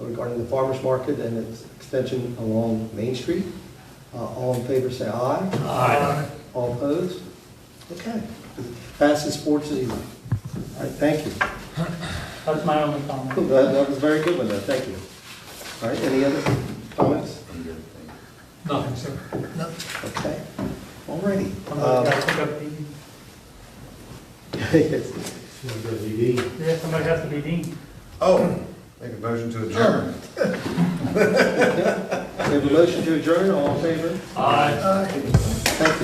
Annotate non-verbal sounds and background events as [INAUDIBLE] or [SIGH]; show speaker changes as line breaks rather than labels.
regarding the farmer's market and its extension along Main Street. Uh, All in favor, say aye.
Uh,
Aye.
All opposed? Okay. Passes four to zero. All right, thank you.
That's my only comment.
That that was very good one, though, thank you. All right, any other comments?
Nothing, sir.
Okay, all righty.
I'm
Um, [LAUGHS]
gonna pick up the-
yes.
Yeah, somebody has to be dean.
Oh, make a motion to adjourn.
We have a motion to adjourn, all in favor?
Aye.
Thank you.